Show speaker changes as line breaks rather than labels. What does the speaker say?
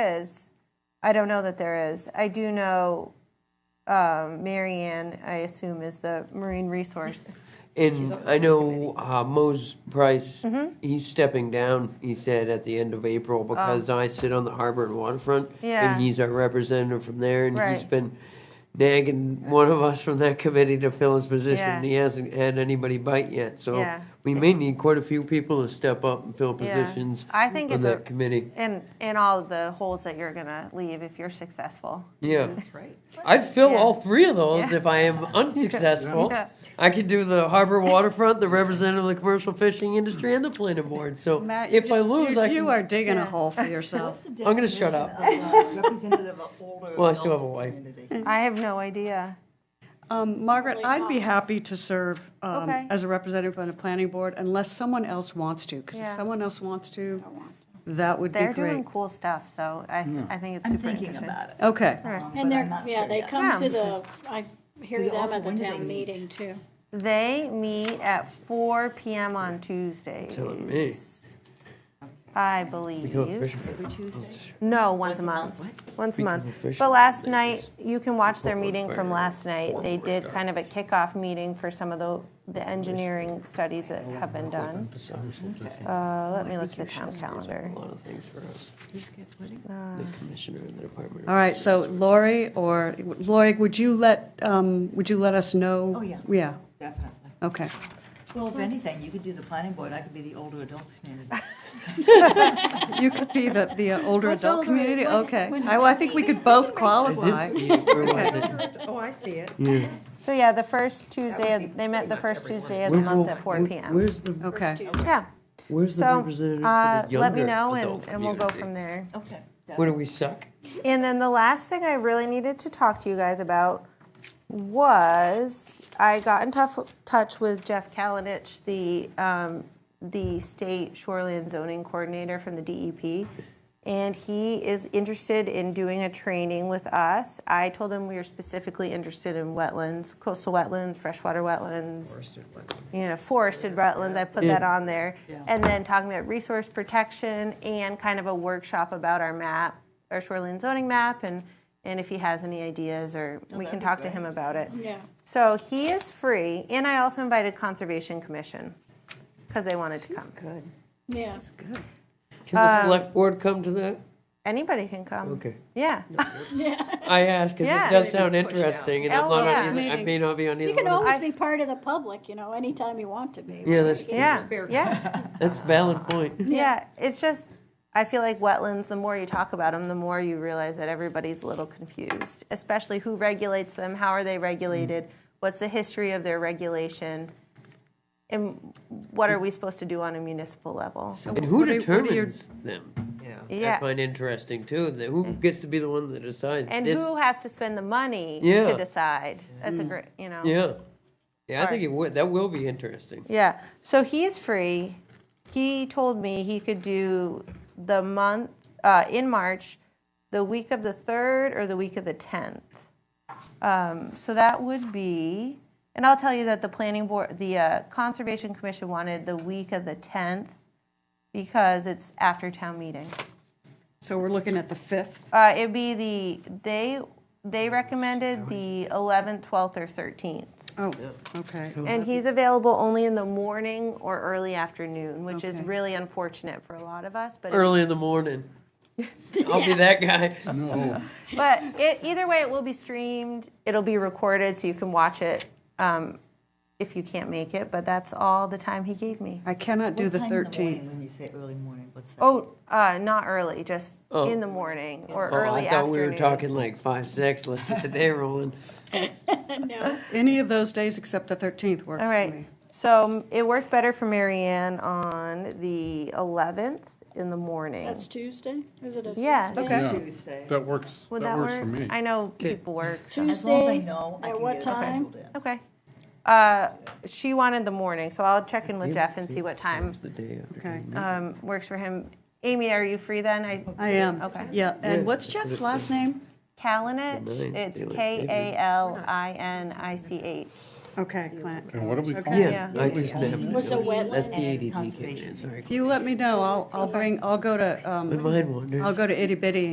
is, I don't know that there is. I do know um, Marianne, I assume, is the Marine Resource.
And I know uh, Mose Price,
Mm-hmm.
he's stepping down, he said, at the end of April because I sit on the harbor and waterfront.
Oh. Yeah.
And he's our representative from there. And he's
Right.
been nagging one of us from that committee to fill his position.
Yeah.
And he hasn't had anybody bite yet. So
Yeah.
we may need quite a few people to step up and fill
Yeah.
positions
I think
on
it's a-
that committee.
And, and all of the holes that you're going to leave if you're successful.
Yeah.
Mm-hmm.
Right.
I'd fill
Yeah.
all three of those
Yeah.
if I am unsuccessful.
Yeah.
I could do the harbor waterfront, the representative of the commercial fishing industry, and the planning board. So
Matt,
if
you
I
just-
lose,
you,
I
you
can,
are digging a hole for yourself.
I'm going to shut up.
Representative of older.
Well, I still have a
adult
wife.
community.
I have no idea.
Um, Margaret, I'd be happy to serve um,
Okay.
as a representative on the planning board unless someone else wants to, because if
Yeah.
someone else wants to, that would be
They're doing
great.
cool stuff, so I, I think it's
I'm
super
thinking
interesting.
about it.
Okay,
Um, but
And
I'm
they're,
not
yeah,
sure
they
yet.
come to the, I hear
Because
them
also,
at the
when do they
town
meet?
meeting too.
They meet at 4 p.m. on Tuesdays.
Telling me.
I
Go
believe.
fishing.
No, once a month. Once a month.
official.
But last night, you can watch their meeting
fire.
from last night. They did kind of a kickoff meeting for some of the, the engineering studies that have been done. Uh, let me look at the town calendar.
A lot of things for us. The commissioner and the department.
all right, so Lori or, Lori, would you let, um, would you let us know?
Oh, yeah.
Yeah,
Definitely.
okay.
Well, if anything, you could do the planning board, I could be the older adults community.
You could be the, the uh, older
What's
adult
older?
community,
When-
okay.
when-
I- Well, I think we could both
I
qualify.
did see it. Where was it?
Oh, I see it.
So yeah, the first Tuesday, of- they met the first Tuesday of the
Where-
month at 4
where-
p.m.
Where's the,
Okay,
Yeah,
where's the
so
representative
uh,
for the
let me
younger
know and,
adult
and we'll go
community?
from there.
Okay.
Where do we suck?
And then the last thing I really needed to talk to you guys about was I got in tough, touch with Jeff Kalinich, the um, the state shoreline zoning coordinator from the DEP, and he is interested in doing a training with us. I told him we were specifically interested in wetlands, coastal wetlands, freshwater wetlands, you know, forested wetlands, I put that on there. And then talking about resource protection and kind of a workshop about our map, our shoreline zoning map, and, and if he has any ideas, or we can talk to him about it.
Yeah.
So he is free, and I also invited Conservation Commission, because they wanted to come.
Yeah.
Can
Uh,
the select board come to that?
Anybody can come.
Okay.
Yeah,
I ask because
Yeah.
it does sound interesting, and I'm
Oh,
not
yeah.
on either, I may not be on either
You can
one. of-
always be part of the public, you know, anytime you want to be.
Yeah, that's
yeah, yeah,
that's valid point.
yeah. It's just, I feel like wetlands, the more you talk about them, the more you realize that everybody's a little confused, especially who regulates them, how are they regulated,
Mm.
what's the history of their regulation, and what are we supposed to do on a municipal level?
And who
what are- what are your- Mm.
determines them? I
Yeah,
find interesting too. That who gets to be the one that decides?
and
this-
who has to spend the money
Yeah. Mm.
to decide? That's a great, you know.
Yeah, yeah. I
Sorry.
think it would. That will be interesting.
Yeah. So he's free. He told me he could do the month uh, in March, the week of the third or the week of the tenth. Um, so that would be, and I'll tell you that the planning board, the uh, conservation commission wanted the week of the tenth because it's after town meeting.
so we're looking at the 5th.
Uh, it'd be the they they recommended the eleventh, twelfth, or thirteenth.
Oh, okay.
And he's available only in the morning or early afternoon, which is
Okay.
really unfortunate for a lot of us. But
Early in the morning, I'll be that guy.
but it, either way, it will be streamed. It'll be recorded, so you can watch it um, if you can't make it. But that's all the time he gave me.
I cannot do
What
the
time in morning
13th.
When you say early morning, what's that?
Oh, uh, not early, just in the morning or
Oh,
early
I thought
afternoon.
we were talking like five, six. Let's get the day rolling.
Any of those days except the 13th works
All
for
right.
me.
So um, it worked better for Marianne on the 11th in the morning.
That's Tuesday? Is it a Tuesday?
Yes.
Okay.
Yeah.
Tuesday.
That works,
Would
that works for me.
I know people work. so-
As long as I
Tuesday,
know, I
at
can
what
get it
time?
scheduled in.
Okay. Uh, she wanted the morning, so I'll check in with Jeff and see what time
It's the day after.
Okay.
um, works for him. Amy, are you free then? I,
I am.
Okay.
Yeah, and what's Jeff's last name?
Kalinich,
Really?
it's
Really?
K A L I N I C H.
Okay, Clint.
And what do we call it?
Yeah, I just didn't.
Was it wetland
That's the
and
ADD kicking
conservation?
in. Sorry,
You let me know, I'll, I'll bring, I'll go to, um,
my mind wanders.
I'll go to itty bitty